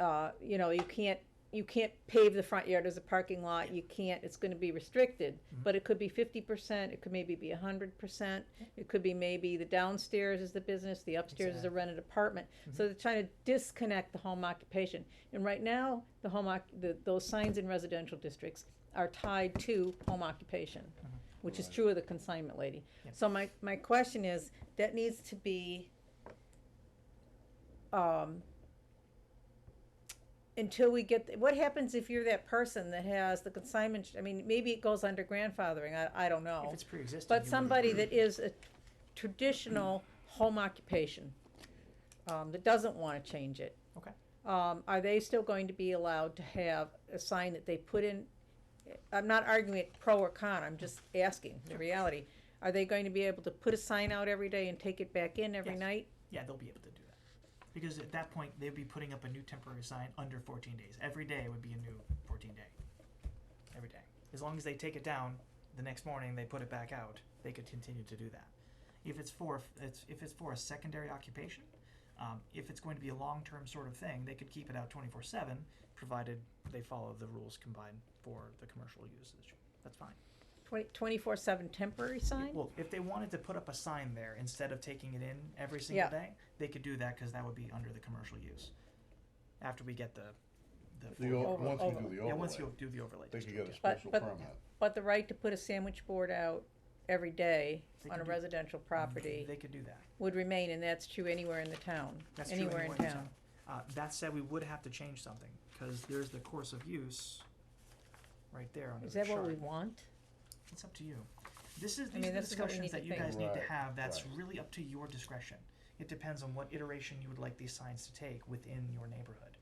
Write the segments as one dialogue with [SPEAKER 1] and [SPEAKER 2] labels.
[SPEAKER 1] uh, you know, you can't, you can't pave the front yard as a parking lot, you can't, it's gonna be restricted. But it could be fifty percent, it could maybe be hundred percent, it could be maybe the downstairs is the business, the upstairs is a rented apartment. So they're trying to disconnect the home occupation. And right now, the home oc, the, those signs in residential districts are tied to home occupation, which is true of the consignment lady.
[SPEAKER 2] Yep.
[SPEAKER 1] So my, my question is, that needs to be, um, until we get, what happens if you're that person that has the consignment, I mean, maybe it goes under grandfathering, I, I don't know.
[SPEAKER 2] If it's pre-existing. you
[SPEAKER 1] But
[SPEAKER 2] would-
[SPEAKER 1] somebody that is a traditional home occupation, um, that doesn't wanna change it.
[SPEAKER 2] Okay.
[SPEAKER 1] Um, are they still going to be allowed to have a sign that they put in? I'm not arguing it pro or con, I'm just asking the reality. Are they going to be able to put a sign out every day and take it back in every
[SPEAKER 2] Yes.
[SPEAKER 1] night?
[SPEAKER 2] Yeah, they'll be able to do that. Because at that point, they'd be putting up a new temporary sign under fourteen days. Every day would be a new fourteen day. Every day. As long as they take it down, the next morning they put it back out, they could continue to do that. If it's for, it's, if it's for a secondary occupation, um, if it's going to be a long-term sort of thing, they could keep it out twenty-four seven, provided they follow the rules combined for the commercial usage. That's fine.
[SPEAKER 1] Twenty, twenty-four seven temporary
[SPEAKER 2] Yeah,
[SPEAKER 1] sign?
[SPEAKER 2] Well, if they wanted to put up a sign there instead of taking it in every
[SPEAKER 1] Yeah.
[SPEAKER 2] single day, they could do that because that would be under the commercial use. After we get the, the.
[SPEAKER 3] The,
[SPEAKER 2] full-
[SPEAKER 3] o-
[SPEAKER 1] Over-
[SPEAKER 3] once
[SPEAKER 1] over.
[SPEAKER 3] we do the
[SPEAKER 2] Yeah, once
[SPEAKER 3] overlay,
[SPEAKER 2] you do the overlay.
[SPEAKER 3] they could
[SPEAKER 2] district,
[SPEAKER 3] get a
[SPEAKER 2] yeah.
[SPEAKER 1] But-
[SPEAKER 3] special
[SPEAKER 1] but-
[SPEAKER 3] permit.
[SPEAKER 1] But the right to put a sandwich board out every day
[SPEAKER 2] They
[SPEAKER 1] on
[SPEAKER 2] can
[SPEAKER 1] a
[SPEAKER 2] do-
[SPEAKER 1] residential property
[SPEAKER 2] They could do that.
[SPEAKER 1] would remain, and that's true anywhere in the town,
[SPEAKER 2] That's true
[SPEAKER 1] anywhere in town.
[SPEAKER 2] Uh, that said, we would have to change something because there's the course of use right there under
[SPEAKER 1] Is
[SPEAKER 2] the
[SPEAKER 1] that
[SPEAKER 2] chart.
[SPEAKER 1] what we want?
[SPEAKER 2] It's up to you. This is,
[SPEAKER 1] I
[SPEAKER 2] these
[SPEAKER 1] mean,
[SPEAKER 2] are the
[SPEAKER 1] that's what we need
[SPEAKER 2] discussions that
[SPEAKER 1] to
[SPEAKER 2] you
[SPEAKER 1] think.
[SPEAKER 2] guys need to
[SPEAKER 3] Right,
[SPEAKER 2] have, that's
[SPEAKER 3] right.
[SPEAKER 2] really up to your discretion. It depends on what iteration you would like these signs to take within your neighborhood.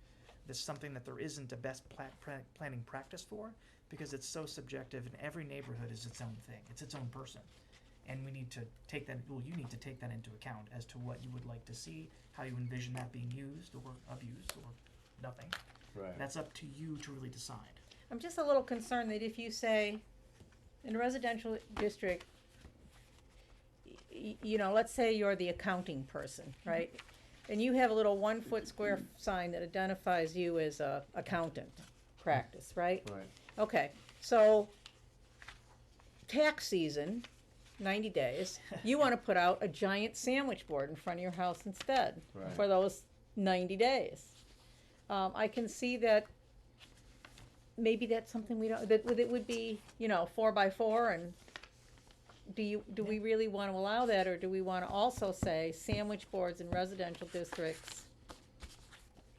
[SPEAKER 2] This is something that there isn't a best pla- pra- planning practice for, because it's so subjective and every neighborhood is its own thing, it's its own person. And we need to take that, well, you need to take that into account as to what you would like to see, how you envision that being used or abused or nothing.
[SPEAKER 3] Right.
[SPEAKER 2] That's up to you to really decide.
[SPEAKER 1] I'm just a little concerned that if you say, in a residential district, y- y- you know, let's say you're the accounting person, right? And you have a little one-foot square f- sign that identifies you as a accountant practice, right?
[SPEAKER 3] Right.
[SPEAKER 1] Okay, so tax season, ninety days, you wanna put out a giant sandwich board in front of your house instead
[SPEAKER 3] Right.
[SPEAKER 1] for those ninety days. Um, I can see that maybe that's something we don't, that, it would be, you know, four by four and do you, do we really wanna allow that or do we wanna also say sandwich boards in residential districts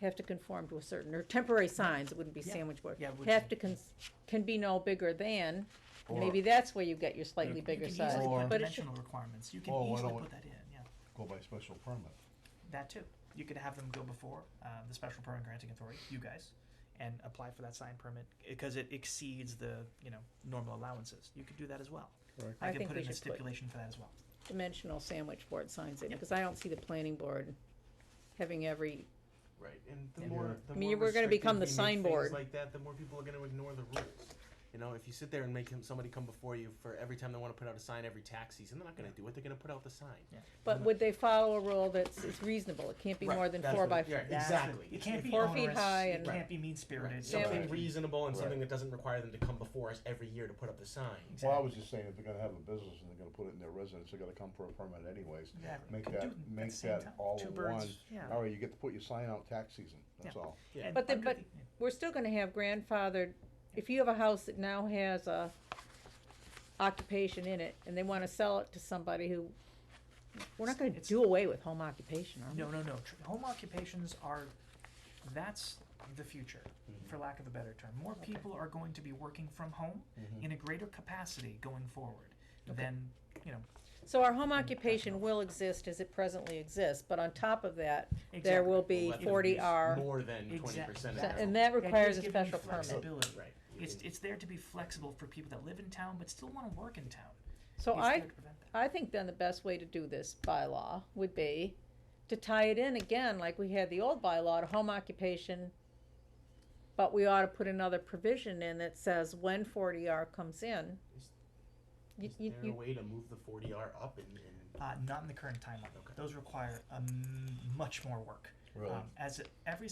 [SPEAKER 1] have to conform to a certain, or temporary signs, it wouldn't be
[SPEAKER 2] Yeah.
[SPEAKER 1] sandwich board,
[SPEAKER 2] Yeah, it would
[SPEAKER 1] have
[SPEAKER 2] be.
[SPEAKER 1] to cons- can be no bigger than, and
[SPEAKER 3] Or-
[SPEAKER 1] maybe that's where you get your slightly
[SPEAKER 3] You
[SPEAKER 1] bigger
[SPEAKER 2] You can easily
[SPEAKER 1] size.
[SPEAKER 3] Or-
[SPEAKER 2] put
[SPEAKER 1] But it should,
[SPEAKER 2] dimensional requirements, you can
[SPEAKER 3] Well, why
[SPEAKER 2] easily
[SPEAKER 3] don't we-
[SPEAKER 2] put that in, yeah.
[SPEAKER 3] Go by special permit.
[SPEAKER 2] That too. You could have them go before uh, the special permit granting authority, you guys, and apply for that sign permit because it exceeds the you know normal allowances. You could do that as well.
[SPEAKER 3] Correct.
[SPEAKER 1] I
[SPEAKER 2] I, could
[SPEAKER 1] think
[SPEAKER 2] put
[SPEAKER 1] we
[SPEAKER 2] in a
[SPEAKER 1] should put-
[SPEAKER 2] stipulation for that as well.
[SPEAKER 1] dimensional sandwich board signs in,
[SPEAKER 2] Yep.
[SPEAKER 1] because I don't see the planning board having every,
[SPEAKER 4] Right, and the
[SPEAKER 2] Yeah.
[SPEAKER 4] more, the
[SPEAKER 1] I mean,
[SPEAKER 4] more
[SPEAKER 1] we're gonna
[SPEAKER 4] restrictive
[SPEAKER 1] become the
[SPEAKER 4] we make
[SPEAKER 1] signboard.
[SPEAKER 4] things like that, the more people are gonna ignore the rules. You know, if you sit there and make him, somebody come before you for every time they want to put out a sign every tax season, they're not gonna do it. They're gonna put out the sign.
[SPEAKER 1] but would they follow a rule that's, it's reasonable, it can't be
[SPEAKER 4] Right,
[SPEAKER 1] more than
[SPEAKER 4] that's
[SPEAKER 1] four
[SPEAKER 4] what
[SPEAKER 1] by
[SPEAKER 4] it-
[SPEAKER 1] four?
[SPEAKER 4] yeah,
[SPEAKER 2] That's the-
[SPEAKER 4] Exactly.
[SPEAKER 2] It can't be
[SPEAKER 1] Four feet
[SPEAKER 2] onerous,
[SPEAKER 1] high
[SPEAKER 2] It
[SPEAKER 1] and-
[SPEAKER 2] can't be mean spirited.
[SPEAKER 4] Right.
[SPEAKER 2] Something
[SPEAKER 4] Something
[SPEAKER 3] Right.
[SPEAKER 4] reasonable and
[SPEAKER 3] Right.
[SPEAKER 4] something that doesn't require them to come before us every year to put up the sign.
[SPEAKER 3] Well, I was just saying, if they're gonna have a business and they're gonna put it in their residence, they're gonna come for a permit anyways.
[SPEAKER 2] Exactly.
[SPEAKER 3] Make
[SPEAKER 2] Could do
[SPEAKER 3] that,
[SPEAKER 2] it at the
[SPEAKER 3] make
[SPEAKER 2] same
[SPEAKER 3] that
[SPEAKER 2] time.
[SPEAKER 3] all
[SPEAKER 2] Two
[SPEAKER 3] in
[SPEAKER 2] birds,
[SPEAKER 3] one.
[SPEAKER 2] yeah.
[SPEAKER 3] All right, you get to put your sign out tax season, that's
[SPEAKER 2] Yeah.
[SPEAKER 3] all.
[SPEAKER 4] Yeah.
[SPEAKER 2] And
[SPEAKER 1] But the-
[SPEAKER 2] under
[SPEAKER 1] but-
[SPEAKER 2] yeah.
[SPEAKER 1] We're still gonna have grandfathered, if you have a house that now has a occupation in it, and they wanna sell it to somebody who, we're not gonna
[SPEAKER 2] It's-
[SPEAKER 1] do away with home occupation, are we?
[SPEAKER 2] No, no, no. Tr- Home occupations are, that's the future, for
[SPEAKER 4] Mm-hmm.
[SPEAKER 2] lack of a better term. More people are going to be working from home
[SPEAKER 4] Mm-hmm.
[SPEAKER 2] in a greater capacity going forward than, you know,
[SPEAKER 1] So our home occupation will exist as it presently exists, but on top of that, there
[SPEAKER 2] Exactly.
[SPEAKER 1] will
[SPEAKER 4] We'll
[SPEAKER 1] be
[SPEAKER 4] let them
[SPEAKER 1] forty
[SPEAKER 4] use
[SPEAKER 1] R,
[SPEAKER 4] More than twenty
[SPEAKER 2] Exact-
[SPEAKER 4] percent.
[SPEAKER 2] that-
[SPEAKER 1] and that requires
[SPEAKER 2] just
[SPEAKER 1] a
[SPEAKER 2] giving you
[SPEAKER 1] special permit.
[SPEAKER 2] flexibility.
[SPEAKER 4] Right.
[SPEAKER 2] It's, it's there to be flexible for people that live in town but still wanna work in town.
[SPEAKER 1] So
[SPEAKER 2] It's
[SPEAKER 1] I,
[SPEAKER 2] there to prevent that.
[SPEAKER 1] I think then the best way to do this bylaw would be to tie it in again, like we had the old bylaw to home occupation. But we ought to put another provision in that says when forty R comes in.
[SPEAKER 4] Is-
[SPEAKER 1] You,
[SPEAKER 4] Is
[SPEAKER 1] you,
[SPEAKER 4] there a
[SPEAKER 1] you,
[SPEAKER 4] way to move the forty R up and, and
[SPEAKER 2] Uh, not in the current timeline.
[SPEAKER 4] Okay.
[SPEAKER 2] Those require, um, much more work.
[SPEAKER 3] Really?
[SPEAKER 2] Um, As every